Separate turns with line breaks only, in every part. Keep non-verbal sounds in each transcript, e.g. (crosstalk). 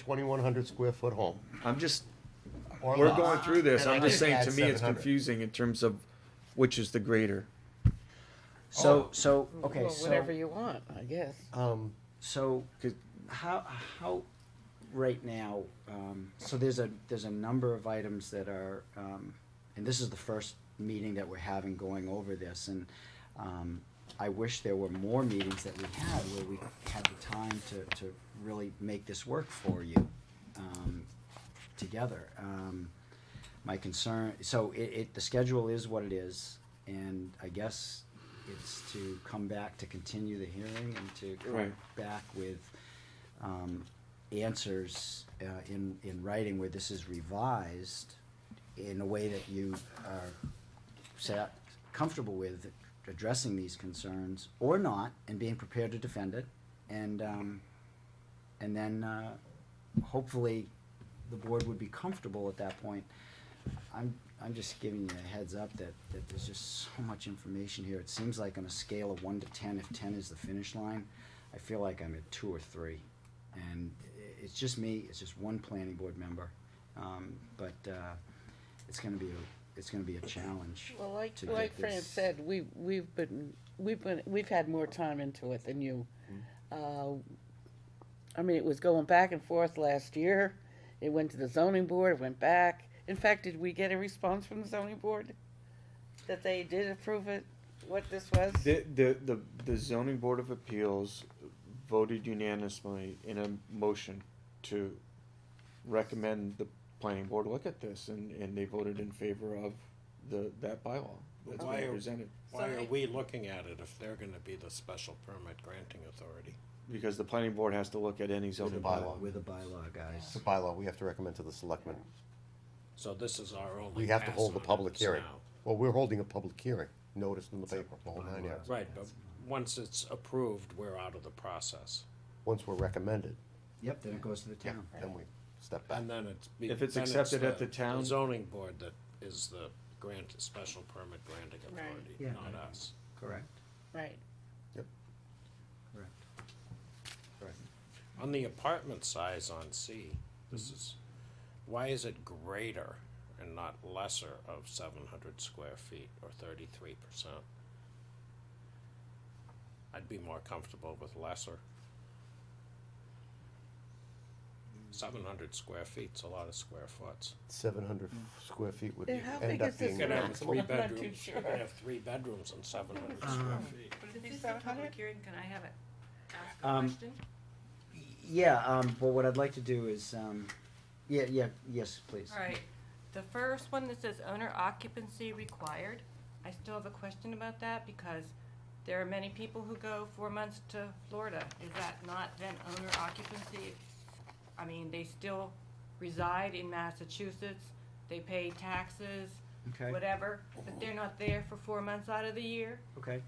twenty-one hundred square foot home.
I'm just,
or
we're
lot.
going through this,
And
I'm
I
just saying,
add
to me, it's
700.
confusing in terms of which is the greater.
So, so, okay,
Mm, Well,
so, Uh,
whatever you want, I guess.
Um,
so
'Cause-
how, how, right now, um, so there's a, there's a number of items that are, um, and this is the first meeting that we're having going over this, and, um, I wish there were more meetings that we had where we had the time to, to really make this work for you, um, together. Um, my concern, so it, it, the schedule is what it is, and I guess it's to come back to continue the hearing and to come
Right.
back with, um, answers, uh, in, in writing where this is revised in a way that you are sat comfortable with addressing these concerns or not and being prepared to defend it and um, and then uh, hopefully the board would be comfortable at that point I'm I'm just giving you a heads up that, that there's just so much information here. It seems like on a scale of one to ten, if ten is the finish line, I feel like I'm at two or three. And i- it's just me, it's just one planning board member. Um, but, uh, it's gonna be, a it's gonna be a challenge.
Well, like,
to
like
get
Fran
this-
said, we, we've been, we've been, we've had more time into it than you.
Hmm.
Uh, I mean, it was going back and forth last year. It went to the zoning board, it went back. In fact, did we get a response from the zoning board? That they did approve it, what this was?
The, the, the, the zoning board of appeals voted unanimously in a motion to recommend the planning board look at this, and, and they voted in favor of the, that bylaw that's
Why
being
are-
presented.
Why are
Sorry.
we looking at it if they're gonna be the special permit granting authority?
Because the planning board has to look at any zoning bylaw.
With a bylaw, guys.
It's a bylaw, we have to recommend to the selectmen.
So this is our only.
We have to
pass
hold a
on it
public hearing.
now.
Well, we're holding a public hearing, notice in the paper, the whole nine yards,
Right, but once it's approved, we're out of the process.
once we're recommended,
Yep, then it goes to the
yeah,
town.
then we step back.
And then it's. be-
If it's
then
accepted at the town-
Zoning board that is the grant, special permit granting
Right.
authority,
Yeah.
not us.
Correct,
Right.
correct. Correct.
On the apartment size on C, this is, why is it greater and not lesser of seven hundred square feet or thirty-three percent? I'd be more comfortable with lesser. Seven hundred square feet's a lot of square foots.
Seven hundred
Mm.
square feet would
Yeah, how
end
big
up
is this
being
You could have
maximum.
three
I'm not too
bedrooms, you could
sure.
have three bedrooms and seven hundred
Uh,
square feet.
But
Would it
if
be
this is a
700?
public hearing, can I have it? Ask a
Um,
question?
Yeah, um, but what I'd like to do is, um, yeah, yeah, yes, please.
All right, the first one that says owner occupancy required, I still have a question about that because there are many people who go four months to Florida. Is that not then owner occupancy? I mean, they still reside in Massachusetts, they pay taxes,
Okay,
whatever, but they're not there for four months out of the year.
okay.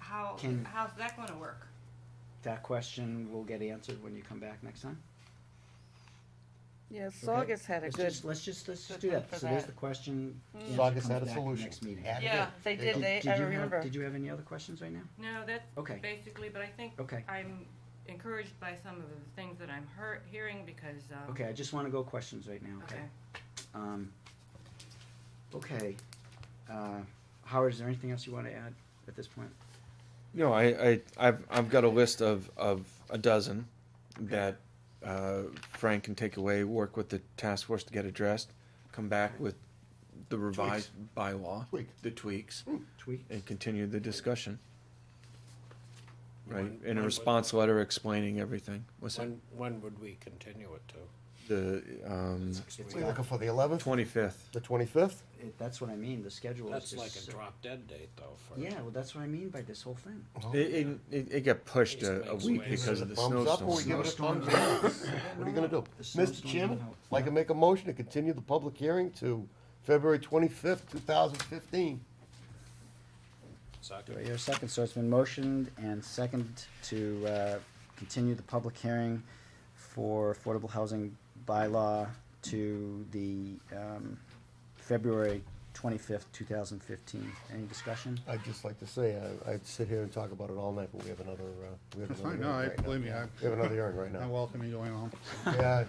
How,
Can-
how's that gonna work?
That question will get answered when you come back next time.
Yeah,
Okay.
Saugus had a
Let's
good,
just, let's just, let's just
good
do
one
that.
for
So there's
that.
the question. answer
Saugus
comes
had a
back
solution. Oh,
Next meeting.
Add it
yeah,
in.
they
There
did,
you
they,
you
I
have-
remember.
Did you have any other questions right now?
No, that's
Okay.
basically, but I think
Okay,
I'm encouraged by some of the things that I'm hear- hearing because, um.
okay, I just wanna go questions right now, okay?
Okay.
Um, okay, uh, Howard, is there anything else you wanna add at this point?
No, I, I, I've, I've got a list of, of a dozen that, uh, Frank can take away, work with the task force to get addressed, come back with the revised bylaw.
Tweak.
The tweaks,
Hmm.
Tweak?
and continue the discussion. Right,
When-
in
when
a
would-
response letter explaining everything, was that
When, when would we continue it to?
the, um,
Six
We're
weeks?
looking for the eleventh,
twenty-fifth?
the twenty-fifth,
It- That's what I mean, the schedule is
That's like
just.
a
so-
drop dead date though for.
Yeah, well, that's what I mean by this whole thing.
It, it, it got pushed a, a week because of the
thumbs up or we give
snowstorm.
it a
Snowstorm.
thumbs down? (laughs) What are you gonna do?
The
Mr.
snowstorm
Chairman,
went out.
I'd like to make a motion to continue the public hearing to February twenty-fifth, two thousand fifteen.
Do
Second.
I hear a second? So it's been motioned and second to uh, continue the public hearing for affordable housing bylaw to the um, February twenty-fifth, two thousand fifteen. Any discussion?
I'd just like to say, I, I'd sit here and talk about it all night, but we have another, uh, we have
That's
another.
fine,
hearing
no, I,
right now.
believe me, (laughs) I.
We have another hearing right
I
now.
welcome you going home.
Yeah,